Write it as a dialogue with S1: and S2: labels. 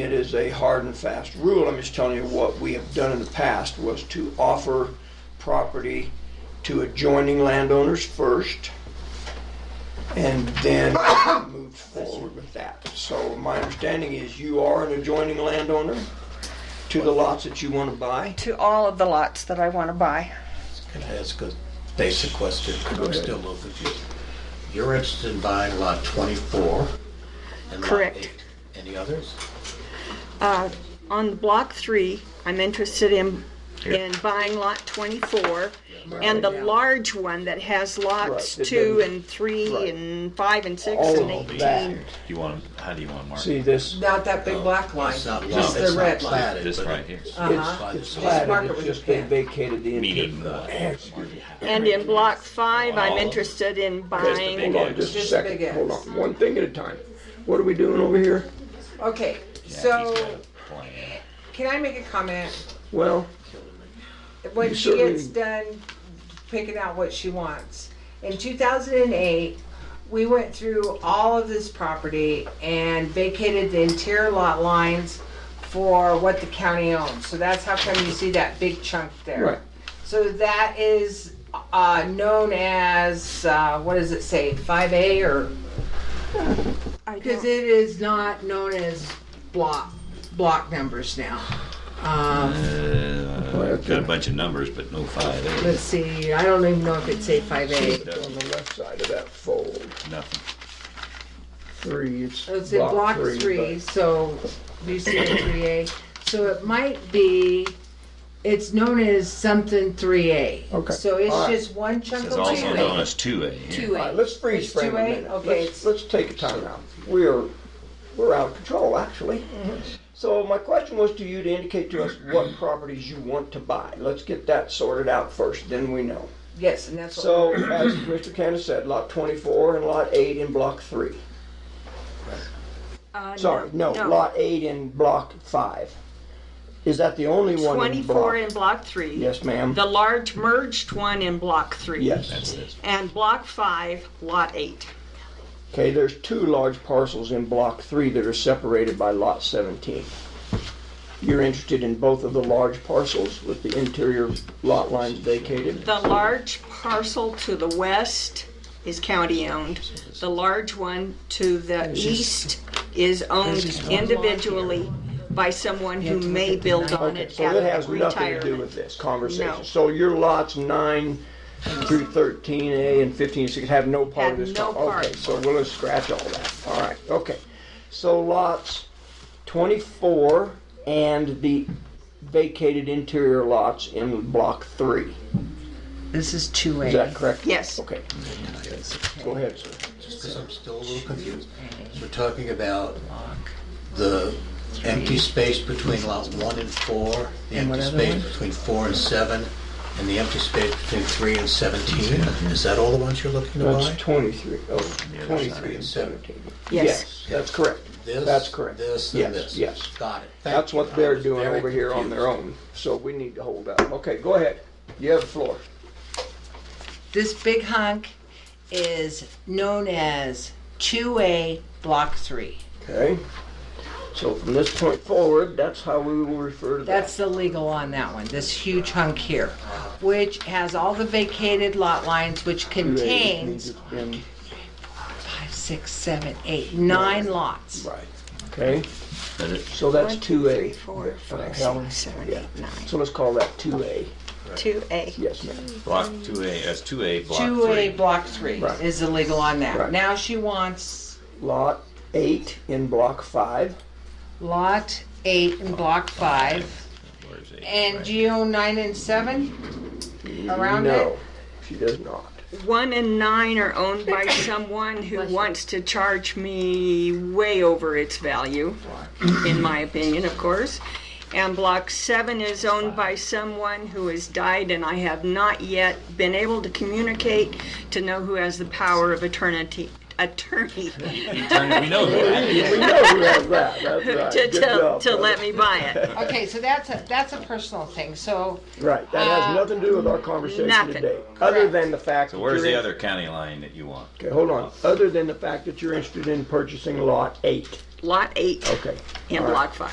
S1: It is a hard and fast rule. I'm just telling you what we have done in the past was to offer property to adjoining landowners first and then move forward with that. So my understanding is you are an adjoining landowner to the lots that you want to buy.
S2: to all of the lots that I want to buy.
S3: Can I ask a basic question? 'Cause I'm still a little confused. You're interested in buying lot 24 and lot
S4: Correct.
S3: 8. Any others?
S4: On block three, I'm interested in, in buying lot twenty-four and the large one that has lots
S1: Right, it
S4: two
S1: doesn't-
S4: and three
S1: right.
S4: and five and six
S1: All
S4: and
S1: of that.
S4: eighteen.
S5: Do you want, 'em- how do you want to mark?
S1: See this?
S6: Not that big black line,
S3: It's not
S6: just
S3: lot- it's
S6: the
S3: not
S6: red line.
S3: platted,
S5: This
S3: but
S5: right here,
S6: Uh,
S3: it's-
S1: It's
S3: it's-
S6: mark
S1: platted,
S6: it
S1: it's
S6: with
S1: just
S6: a
S1: they
S6: pen.
S1: vacated the entire.
S5: meaning what?
S4: And in block five,
S5: All
S4: I'm
S5: of them.
S4: interested in
S5: There's the big
S4: buying,
S1: Hold on just a
S6: Just
S1: second.
S6: big X.
S1: Hold on, one thing at a time. What are we doing over here?
S6: Okay,
S5: Yeah, he's got
S6: so
S5: a plan.
S6: can I make a comment?
S1: Well,
S6: When
S1: You
S6: she gets
S1: certainly-
S6: done picking out what she wants. In two thousand and eight, we went through all of this property and vacated the interior lot lines for what the county owns. So that's how come you see that big chunk there.
S1: right,
S6: So that is uh, known as, uh, what does it say, 5A or? Because uh, it is not known as block, block numbers now. Um,
S5: Uh, Got a bunch of numbers, but no five, eh,
S6: Let's see, I don't even know if it's a 5A.
S1: on the left side of that fold,
S5: nothing.
S1: three, it's
S6: Oh, It's in
S1: block
S6: block
S1: three.
S6: three, so you see the 3A. So it might be, it's known as something 3A.
S1: Okay.
S6: So it's
S1: All right.
S6: just one chunk
S5: It's
S6: of
S5: also known
S6: land.
S5: as two A.
S1: but- All right, let's freeze
S6: It's
S1: frame a
S6: 2A?
S1: minute.
S6: Okay,
S1: Let's,
S6: it's-
S1: let's take a timeout. We're, we're out of control, actually.
S6: Mm-hmm.
S1: So my question was to you to indicate to us what properties you want to buy. Let's get that sorted out first, then we know.
S6: Yes, and that's what.
S1: So, as Mr. Candace said, lot twenty-four and lot eight in block three.
S4: uh,
S1: Sorry, no, lot eight in block five. Is that the only one in
S4: twenty-four
S1: block?
S4: in block three.
S1: Yes, ma'am.
S4: The large merged one in block three.
S1: Yes.
S4: And block five, lot eight.
S1: Okay, there's two large parcels in block three that are separated by lot seventeen. You're interested in both of the large parcels with the interior lot lines vacated?
S4: The large parcel to the west is county-owned. The large one to the east is owned individually by someone who may build on
S1: Okay,
S4: it
S1: so
S4: at
S1: that has nothing to do
S4: retirement.
S1: with this conversation.
S4: No.
S1: So your lots nine through thirteen A and fifteen and six have no part of
S4: Have
S1: this?
S4: no
S1: con- Okay,
S4: part.
S1: so we'll just scratch all that. All right, okay. So lots twenty-four and the vacated interior lots in block three.
S2: This is
S1: Is
S2: 2A.
S1: that correct?
S4: Yes.
S1: Okay. Go ahead, sir.
S3: Because I'm still a little confused. So We're talking about the empty space between lot one and four, the empty space between four and seven, and the empty space between three and seventeen.
S5: Mm-hmm.
S3: Is that all the ones you're looking to
S1: That's
S3: buy?
S1: 23, oh,
S5: Yeah, that's
S1: 23 and
S3: not-
S1: 17.
S4: Yes.
S1: That's correct.
S3: This,
S1: That's correct.
S3: This,
S1: Yes,
S3: and this.
S1: yes.
S3: Got it. Thank
S1: That's
S3: you.
S1: what
S3: I
S1: they're
S3: was
S1: doing
S3: very
S1: over here on their
S3: confused.
S1: own, so we need to hold up. Okay, go ahead. You have the floor.
S6: This big hunk is known as 2A Block 3.
S1: Okay? So from this point forward, that's how we will refer to that.
S6: That's the legal on that one, this huge hunk here, which has all the vacated lot lines, which contains
S1: In-
S6: five, six, seven, eight, nine lots.
S1: Right. Okay,
S5: But it-
S1: so that's
S4: One, two,
S1: two
S4: three,
S1: A.
S4: four, five,
S1: Helen?
S4: six, seven,
S1: Yeah.
S4: eight, nine.
S1: So let's call that two A.
S4: Two A.
S1: Yes, ma'am.
S5: Block two A, that's two A, block
S6: Two A
S5: three.
S6: block three
S1: Right.
S6: is the legal on
S1: Right.
S6: that. Now she wants
S1: Lot eight in block five.
S6: lot eight and block five,
S5: Where's A?
S6: and
S5: Right.
S6: geo nine and seven around
S1: No,
S6: it.
S1: she does not.
S4: One and nine are owned by someone who wants to charge me way over its value, in my opinion, of course. And block seven is owned by someone who has died, and I have not yet been able to communicate to know who has the power of eternity, attorney
S5: Attorney, We know that.
S1: We know who has that, that's right.
S4: to,
S1: Good
S4: to,
S1: job,
S4: to
S1: brother.
S4: let me buy it.
S6: Okay, so that's a, that's a personal thing, so
S1: Right, that has
S6: Uh,
S1: nothing to do with our conversation
S4: nothing.
S1: today, other
S6: Correct.
S1: than the fact.
S5: So
S1: that
S5: where's
S1: you're
S5: the
S1: in-
S5: other county line that you want?
S1: Okay, hold on, other than the fact that you're interested in purchasing lot eight,
S4: Lot eight
S1: okay.
S4: and
S1: Oh, All right.
S4: block five.